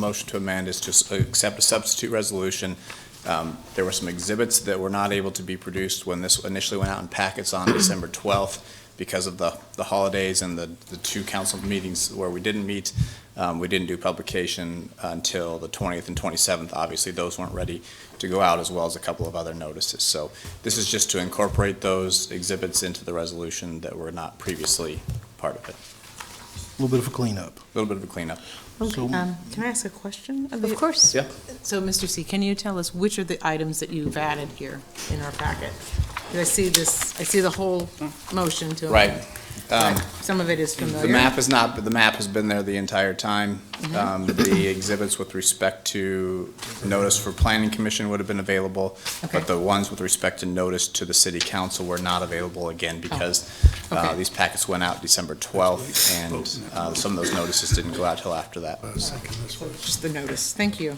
Motion to amend is to s- uh, accept a substitute resolution. Um, There were some exhibits that were not able to be produced when this initially went out in packets on December 12th because of the, the holidays and the, the two council meetings where we didn't meet. Um, We didn't do publication until the 20th and 27th. Obviously, those weren't ready to go out, as well as a couple of other notices. So this is just to incorporate those exhibits into the resolution that were not previously part of it. A little bit of a cleanup. A Little bit of a cleanup. So- Um, Can I ask a question? Of course. Yeah. So, Mr. C, can you tell us which are the items that you've added here in our packet? 'Cause I see this, I see the whole motion to. Right. amend, Um, but Some of it is familiar. The map is not, but the map has been there the entire time. Mm-hmm. Um, The exhibits with respect to notice for planning commission would have been available, Okay. but the ones with respect to notice to the city council were not available again because uh, Oh. okay. these packets went out December 12th, and uh, some of those notices didn't go out till after that. Just the notice. Thank you.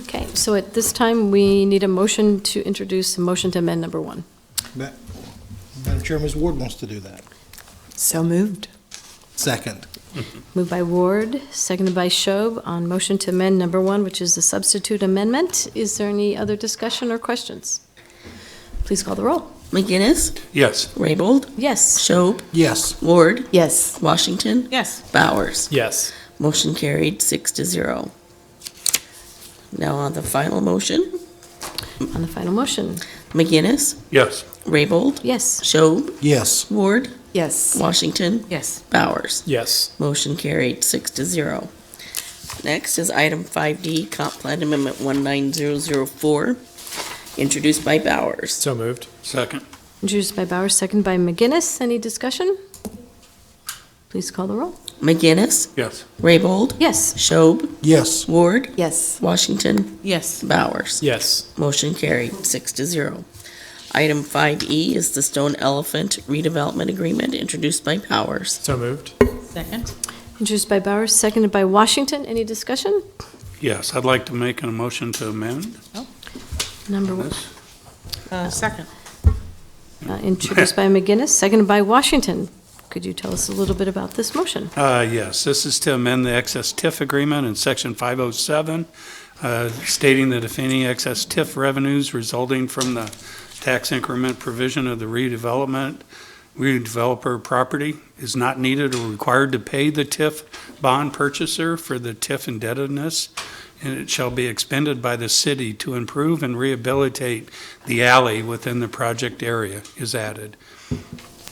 Okay, so at this time, we need a motion to introduce a motion to amend number one. Ma- Madam Chair, Ms. Ward wants to do that. So moved. Second. Moved by Ward, seconded by Shob on motion to amend number one, which is the substitute amendment. Is there any other discussion or questions? Please call the roll. McGinnis, Yes. Raybold, Yes. Shob, Yes. Ward, Yes. Washington, Yes. Bowers. Yes. Motion carried, six to zero. Now on the final motion, On the final motion. McGinnis, Yes. Raybold, Yes. Shob, Yes. Ward, Yes. Washington, Yes. Bowers. Yes. Motion carried, six to zero. Next is item 5D, Comp Plan Amendment 19004, introduced by Bowers. So moved. Second. Introduced by Bauer, seconded by McGinnis. Any discussion? Please call the roll. McGinnis, Yes. Raybold, Yes. Shob, Yes. Ward, Yes. Washington, Yes. Bowers. Yes. Motion carried, six to zero. Item 5E is the Stone Elephant redevelopment agreement introduced by Powers. So moved. Second? Introduced by Bauer, seconded by Washington. Any discussion? Yes, I'd like to make a motion to amend Number one. this. Uh, Second. Uh, Introduced by McGinnis, seconded by Washington. Could you tell us a little bit about this motion? Uh, Yes, this is to amend the excess TIF agreement in Section 507, uh, stating that if any excess TIF revenues resulting from the tax increment provision of the redevelopment, redeveloper property is not needed or required to pay the TIF bond purchaser for the TIF indebtedness, and it shall be expended by the city to improve and rehabilitate the alley within the project area is added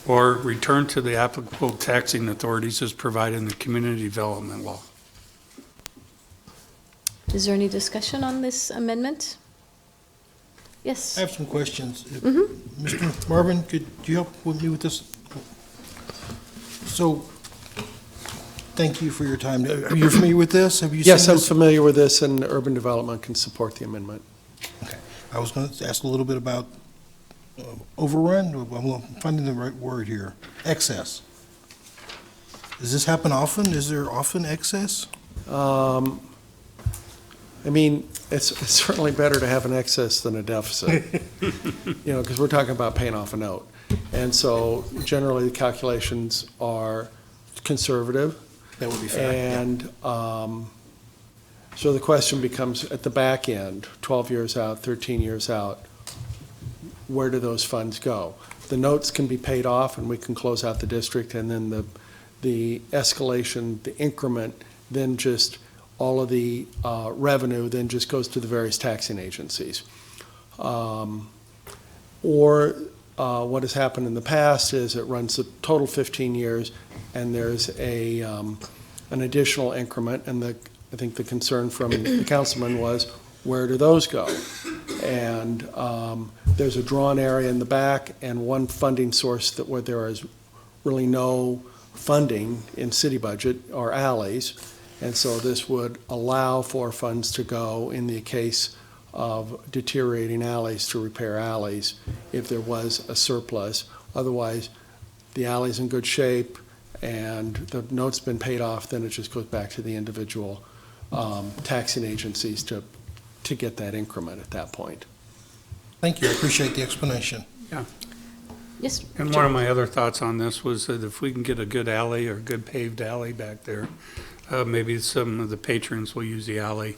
or return to the applicable taxing authorities as provided in the community development law. Is there any discussion on this amendment? Yes. I have some questions. If- Mhm. Mr. Marvin, could you help with me with this? So, thank you for your time. Are you familiar with this? Have you seen Yes, I'm this? familiar with this, and urban development can support the amendment. I was going to ask a little bit about uh, overrun, I'm finding the right word here, excess. Does this happen often? Is there often excess? Um, I mean, it's it's certainly better to have an excess than a deficit, you know, because we're talking about paying off a note. And so generally, the calculations are conservative, That would be fair. and um, so the question becomes, at the back end, 12 years out, 13 years out, where do those funds go? The notes can be paid off, and we can close out the district, and then the, the escalation, the increment, then just all of the uh, revenue then just goes to the various taxing agencies. Um, Or uh, what has happened in the past is it runs the total 15 years, and there's a, um, an additional increment, and the, I think the concern from the councilman was, where do those go? And um, there's a drawn area in the back and one funding source that where there is really no funding in city budget are alleys. And so this would allow for funds to go in the case of deteriorating alleys to repair alleys if there was a surplus. Otherwise, the alley's in good shape and the note's been paid off, then it just goes back to the individual um, taxing agencies to, to get that increment at that point. Thank you, I appreciate the explanation. Yes. And one of my other thoughts on this was that if we can get a good alley or a good paved alley back there, Uh, Maybe some of the patrons will use the alley